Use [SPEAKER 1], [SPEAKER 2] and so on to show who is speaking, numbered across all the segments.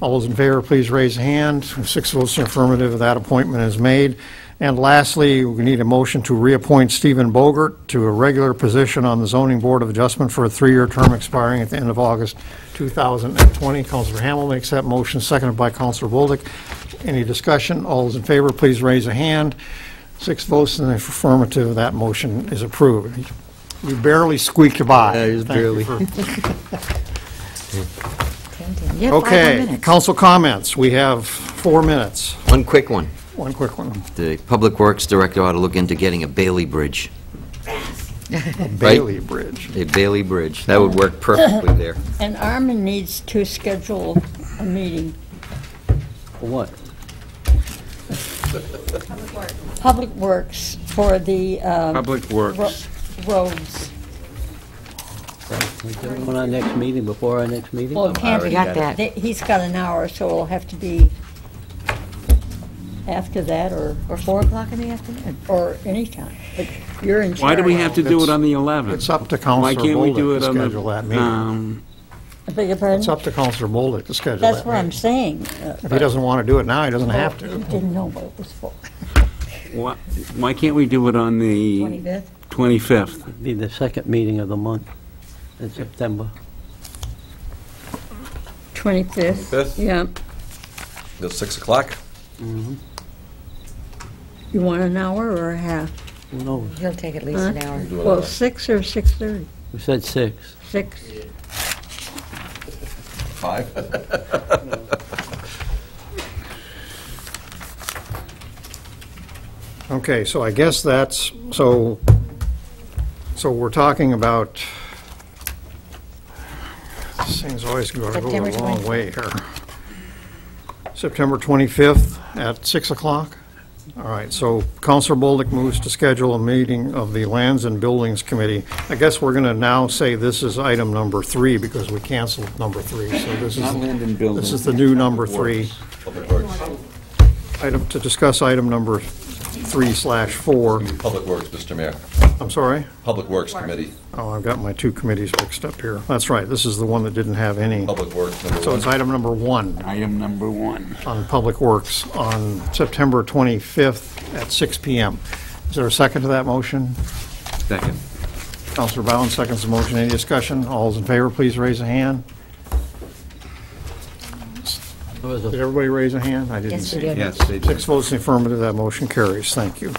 [SPEAKER 1] All those in favor, please raise a hand. Six votes in affirmative, that appointment is made. And lastly, we need a motion to reappoint Stephen Bogert to a regular position on the Zoning Board of Adjustment for a three-year term expiring at the end of August 2020. Counselor Hamel makes that motion, seconded by Counselor Bolduc. Any discussion? All those in favor, please raise a hand. Six votes in the affirmative, that motion is approved. You barely squeaked by.
[SPEAKER 2] Yeah, just
[SPEAKER 1] Thank you
[SPEAKER 2] barely.
[SPEAKER 1] for-
[SPEAKER 3] Yeah, five more
[SPEAKER 1] Okay,
[SPEAKER 3] minutes.
[SPEAKER 1] council comments. We have four minutes.
[SPEAKER 2] One quick one.
[SPEAKER 1] One quick one.
[SPEAKER 2] The Public Works Director ought to look into getting a Bailey Bridge,
[SPEAKER 1] Bailey Bridge.
[SPEAKER 2] a Bailey Bridge. That would work perfectly there.
[SPEAKER 4] And Armin needs to schedule a meeting,
[SPEAKER 5] What?
[SPEAKER 4] Public Works, for the uh,
[SPEAKER 6] Public
[SPEAKER 4] ro-
[SPEAKER 6] Works.
[SPEAKER 4] roads.
[SPEAKER 5] On our next meeting, before our next meeting?
[SPEAKER 4] Well, it can't
[SPEAKER 3] already
[SPEAKER 4] be.
[SPEAKER 3] got that.
[SPEAKER 4] They- He's got an hour, so it'll have to be after that or,
[SPEAKER 3] Or 4 o'clock in the afternoon?
[SPEAKER 4] or anytime. But you're in charge.
[SPEAKER 6] Why do we have to do it on the 11th?
[SPEAKER 1] It's up to Counselor
[SPEAKER 6] Why can't we
[SPEAKER 1] Bolduc
[SPEAKER 6] do
[SPEAKER 1] to
[SPEAKER 6] it on the...
[SPEAKER 1] schedule that meeting.
[SPEAKER 6] um,
[SPEAKER 4] I beg your pardon?
[SPEAKER 1] It's up to Counselor Bolduc to schedule
[SPEAKER 4] That's
[SPEAKER 1] that
[SPEAKER 4] what I'm
[SPEAKER 1] meeting.
[SPEAKER 4] saying. uh,
[SPEAKER 1] If he doesn't want to do it now, he doesn't have
[SPEAKER 4] I
[SPEAKER 1] to.
[SPEAKER 4] Didn't know what it was for.
[SPEAKER 6] why- Why can't we do it on the
[SPEAKER 4] 25th?
[SPEAKER 6] 25th?
[SPEAKER 5] Be the second meeting of the month in September.
[SPEAKER 4] 25th,
[SPEAKER 7] 25th?
[SPEAKER 4] yeah.
[SPEAKER 7] Till 6 o'clock?
[SPEAKER 4] You want an hour or a half?
[SPEAKER 5] Who knows?
[SPEAKER 3] He'll take at least an hour.
[SPEAKER 7] Do it
[SPEAKER 4] Well,
[SPEAKER 7] on-
[SPEAKER 4] 6 or 6:30?
[SPEAKER 5] We said six.
[SPEAKER 4] 6.
[SPEAKER 7] Five?
[SPEAKER 1] Okay, so I guess that's, so, so we're talking about, this thing's always going to go
[SPEAKER 3] September
[SPEAKER 1] the long
[SPEAKER 3] 25th.
[SPEAKER 1] way here. September 25th at 6 o'clock? All right, so Counselor Bolduc moves to schedule a meeting of the Lands and Buildings Committee. I guess we're going to now say this is item number three because we canceled number three, so this is.
[SPEAKER 6] Not land and building.
[SPEAKER 1] This is the new number three
[SPEAKER 7] Public Works,
[SPEAKER 1] item, to discuss item number three slash four.
[SPEAKER 7] Public Works, Mr. Mayor.
[SPEAKER 1] I'm sorry?
[SPEAKER 7] Public Works Committee,
[SPEAKER 1] Oh, I've got my two committees mixed up here. That's right, this is the one that didn't have any.
[SPEAKER 7] Public Works, number
[SPEAKER 1] So
[SPEAKER 7] one.
[SPEAKER 1] it's item number one
[SPEAKER 6] Item number one.
[SPEAKER 1] on Public Works on September 25th at 6 PM. Is there a second to that motion?
[SPEAKER 6] Second.
[SPEAKER 1] Counselor Bowen seconds the motion. Any discussion? All those in favor, please raise a hand.
[SPEAKER 5] There was
[SPEAKER 1] Did
[SPEAKER 5] a-
[SPEAKER 1] everybody raise a hand? I didn't
[SPEAKER 3] Yes, we
[SPEAKER 1] see.
[SPEAKER 3] did.
[SPEAKER 6] Yes, they did.
[SPEAKER 1] Six votes in the affirmative, that motion carries. Thank you.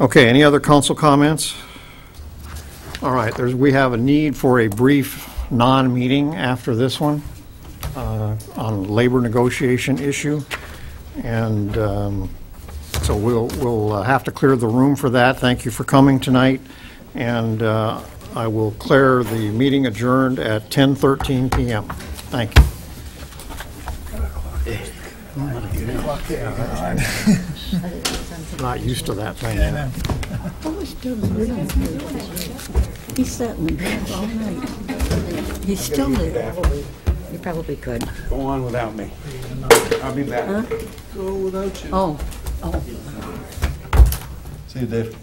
[SPEAKER 1] Okay, any other council comments? All right, there's, we have a need for a brief non-meeting after this one uh, on labor negotiation issue. And um, so we'll, we'll uh, have to clear the room for that. Thank you for coming tonight. And uh, I will declare the meeting adjourned at 10:13 PM. Thank you. Not used to that thing.
[SPEAKER 4] What was Dylan doing? He sat in the bed all night. He's still there.
[SPEAKER 3] You probably could.
[SPEAKER 6] Go on without me. I'll be back.
[SPEAKER 4] Oh.
[SPEAKER 7] See you, Dave.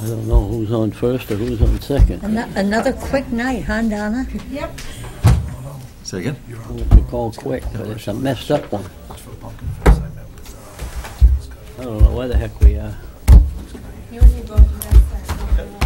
[SPEAKER 5] I don't know who's on first or who's on second.
[SPEAKER 4] Ano- Another quick night, huh, Donna?
[SPEAKER 7] Say again?
[SPEAKER 5] We call quick, but it's a messed up one. I don't know where the heck we are.
[SPEAKER 8] You and you both, you guys